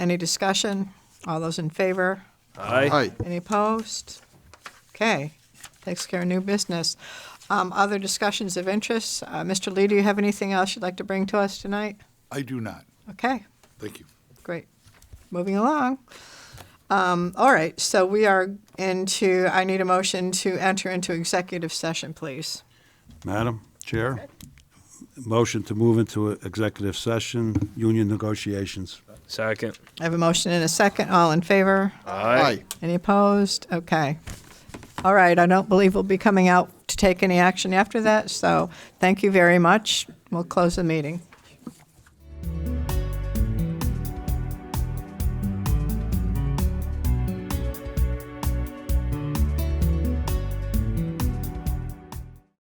Any discussion? All those in favor? Aye. Any opposed? Okay, takes care of new business. Um, Other discussions of interest? Uh, Mr. Lee, do you have anything else you'd like to bring to us tonight? I do not. Okay, Thank you. great. Moving along. Um, All right, so we are into, I need a motion to enter into executive session, please. Madam Chair, motion to move into executive session, union negotiations. Second. I have a motion and a second. All in favor? Aye. Any opposed? Okay. All right, I don't believe we'll be coming out to take any action after that, so thank you very much. We'll close the meeting.